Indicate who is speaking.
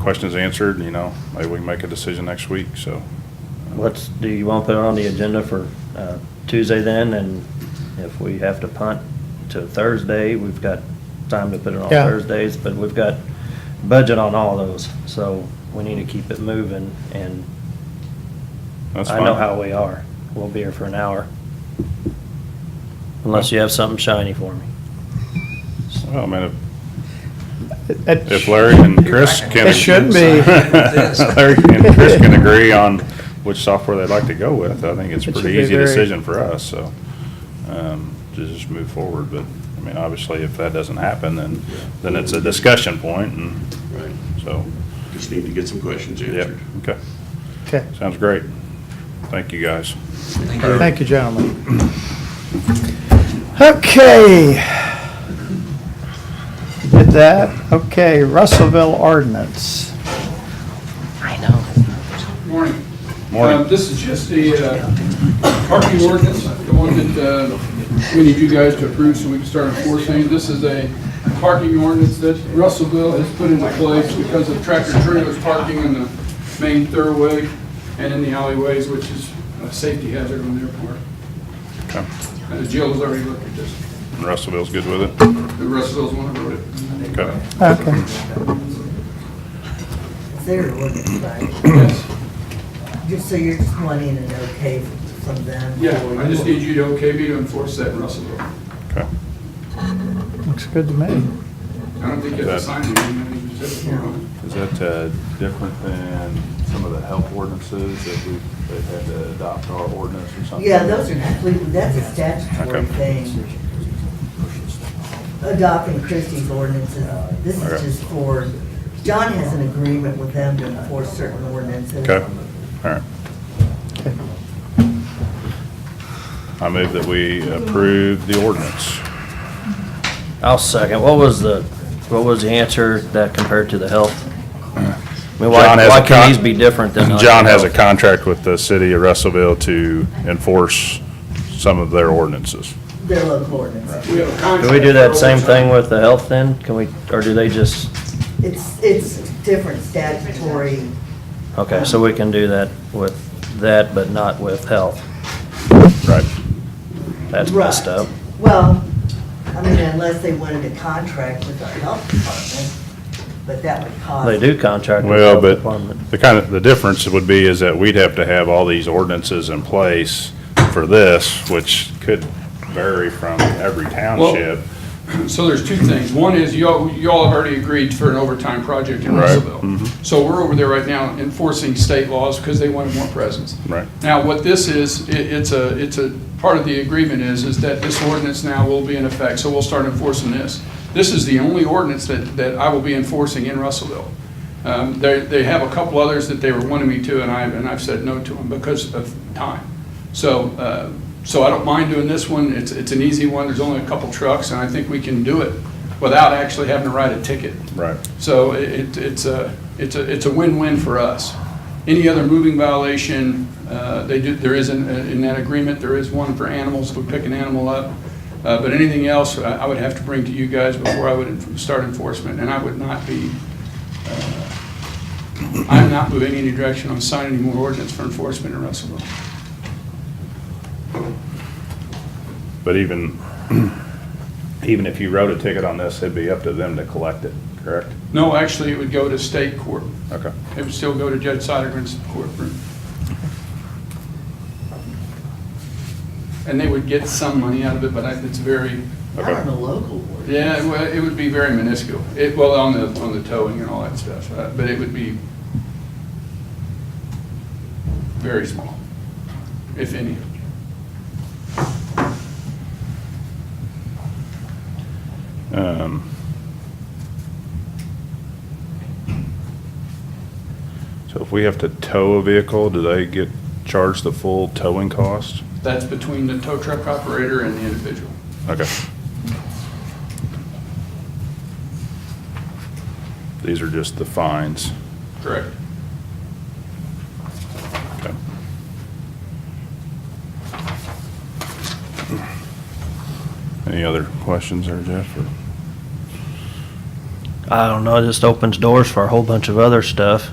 Speaker 1: questions answered, you know, maybe we can make a decision next week, so.
Speaker 2: What's, do you want to put it on the agenda for uh, Tuesday then? And if we have to punt to Thursday, we've got time to put it on
Speaker 3: Yeah.
Speaker 2: Thursdays, but we've got budget on all those, so we need to keep it moving, and
Speaker 1: that's
Speaker 2: I know
Speaker 1: fine.
Speaker 2: how we are. We'll be here for an hour. Unless you have something shiny for me.
Speaker 1: Well, I mean, if-
Speaker 3: That-
Speaker 1: if Larry and Chris can.
Speaker 3: It should be.
Speaker 1: Larry and Chris can agree on which software they'd like to go with, I think it's a
Speaker 3: It should
Speaker 1: pretty
Speaker 3: be
Speaker 1: easy
Speaker 3: very-
Speaker 1: decision for us, so. um, To just move forward, but, I mean, obviously, if that doesn't happen, then, then it's a discussion point, and
Speaker 4: Right,
Speaker 1: so,
Speaker 4: just need to get some questions
Speaker 1: yeah,
Speaker 4: answered.
Speaker 1: okay.
Speaker 3: Okay.
Speaker 1: Sounds great. Thank you, guys.
Speaker 3: Thank you, gentlemen. Okay. Did that, okay, Russellville ordinance.
Speaker 2: I know.
Speaker 5: Morning.
Speaker 1: Morning.
Speaker 5: Um, This is just the uh, parking ordinance, the one that uh, we need you guys to approve so we can start enforcing. This is a parking ordinance that Russellville has put into place because of tractor trailers parking in the main thoroughway and in the alleyways, which is a safety hazard on their part.
Speaker 1: Okay.
Speaker 5: And Jill's already looked at this.
Speaker 1: And Russellville's good with it?
Speaker 5: The Russellville's one who wrote it.
Speaker 1: Okay.
Speaker 3: Okay.
Speaker 6: Their ordinance, right?
Speaker 5: Yes.
Speaker 6: Just so you're just wanting an okay from them?
Speaker 5: Yeah, I just need you to okay me to enforce that in Russellville.
Speaker 1: Okay.
Speaker 3: Looks good to me.
Speaker 5: I don't think you have to sign anything, I think you just have to approve it.
Speaker 1: Is that uh, different than some of the health ordinances that we've, they've had to adopt our ordinance or something?
Speaker 6: Yeah, those are completely, that's a statutory
Speaker 1: Okay.
Speaker 6: thing, adopting Christie's ordinances. This is
Speaker 1: Okay.
Speaker 6: just for, John has an agreement with them to enforce certain ordinances.
Speaker 1: Okay, all right.
Speaker 3: Okay.
Speaker 1: I move that we approve the ordinance.
Speaker 2: I'll second. What was the, what was the answer that compared to the health? I mean, why,
Speaker 1: John has
Speaker 2: why
Speaker 1: a con-
Speaker 2: can these be different than? like
Speaker 1: John has a
Speaker 2: health?
Speaker 1: contract with the city of Russellville to enforce some of their ordinances.
Speaker 6: Their local ordinances.
Speaker 5: We have a
Speaker 2: Do we do that
Speaker 5: contract.
Speaker 2: same thing with the health then? Can we, or do they just,
Speaker 6: It's, it's different statutory,
Speaker 2: okay, so we can do that with that, but not with health?
Speaker 1: Right.
Speaker 2: That's messed
Speaker 6: Right.
Speaker 2: up.
Speaker 6: well, I mean, unless they wanted a contract with our health department, but that would cost.
Speaker 2: They do contract with the
Speaker 1: Well,
Speaker 2: health
Speaker 1: but
Speaker 2: department.
Speaker 1: the kind of, the difference would be is that we'd have to have all these ordinances in place for this, which could vary from every township.
Speaker 5: So there's two things. One is you all, you all have already agreed for an overtime project in
Speaker 1: Right. Mm-hmm.
Speaker 5: Russellville. So we're over there right now enforcing state laws because they wanted more presence.
Speaker 1: Right.
Speaker 5: Now, what this is, i it's a, it's a, part of the agreement is, is that this ordinance now will be in effect, so we'll start enforcing this. This is the only ordinance that, that I will be enforcing in Russellville. Um, they, they have a couple others that they were wanting me to, and I, and I've said no to them because of time. So, uh, so I don't mind doing this one, it's, it's an easy one, there's only a couple trucks, and I think we can do it without actually having to write a ticket.
Speaker 1: Right.
Speaker 5: So it, it's a, it's a, it's a win-win for us. Any other moving violation, uh, they do, there is, in, in that agreement, there is one for animals, if we pick an animal up. Uh, but anything else, I, I would have to bring to you guys before I would en- start enforcement, and I would not be, uh, I'm not moving any direction on signing any more ordinance for enforcement in Russellville.
Speaker 1: But even, even if you wrote a ticket on this, it'd be up to them to collect it, correct?
Speaker 5: No, actually, it would go to state court.
Speaker 1: Okay.
Speaker 5: It would still go to Judge Sidergren's courtroom. And they would get some money out of it, but I- it's very,
Speaker 6: Not on the local ordinance.
Speaker 5: yeah, well, it would be very minuscule. It, well, on the, on the towing and all that stuff, uh, but it would be very small, if any.
Speaker 1: Um, So if we have to tow a vehicle, do they get charged the full towing cost?
Speaker 5: That's between the tow truck operator and the individual.
Speaker 1: Okay. These are just the fines.
Speaker 5: Correct.
Speaker 1: Okay. Any other questions there, Jeff? or-
Speaker 2: I don't know, it just opens doors for a whole bunch of other stuff.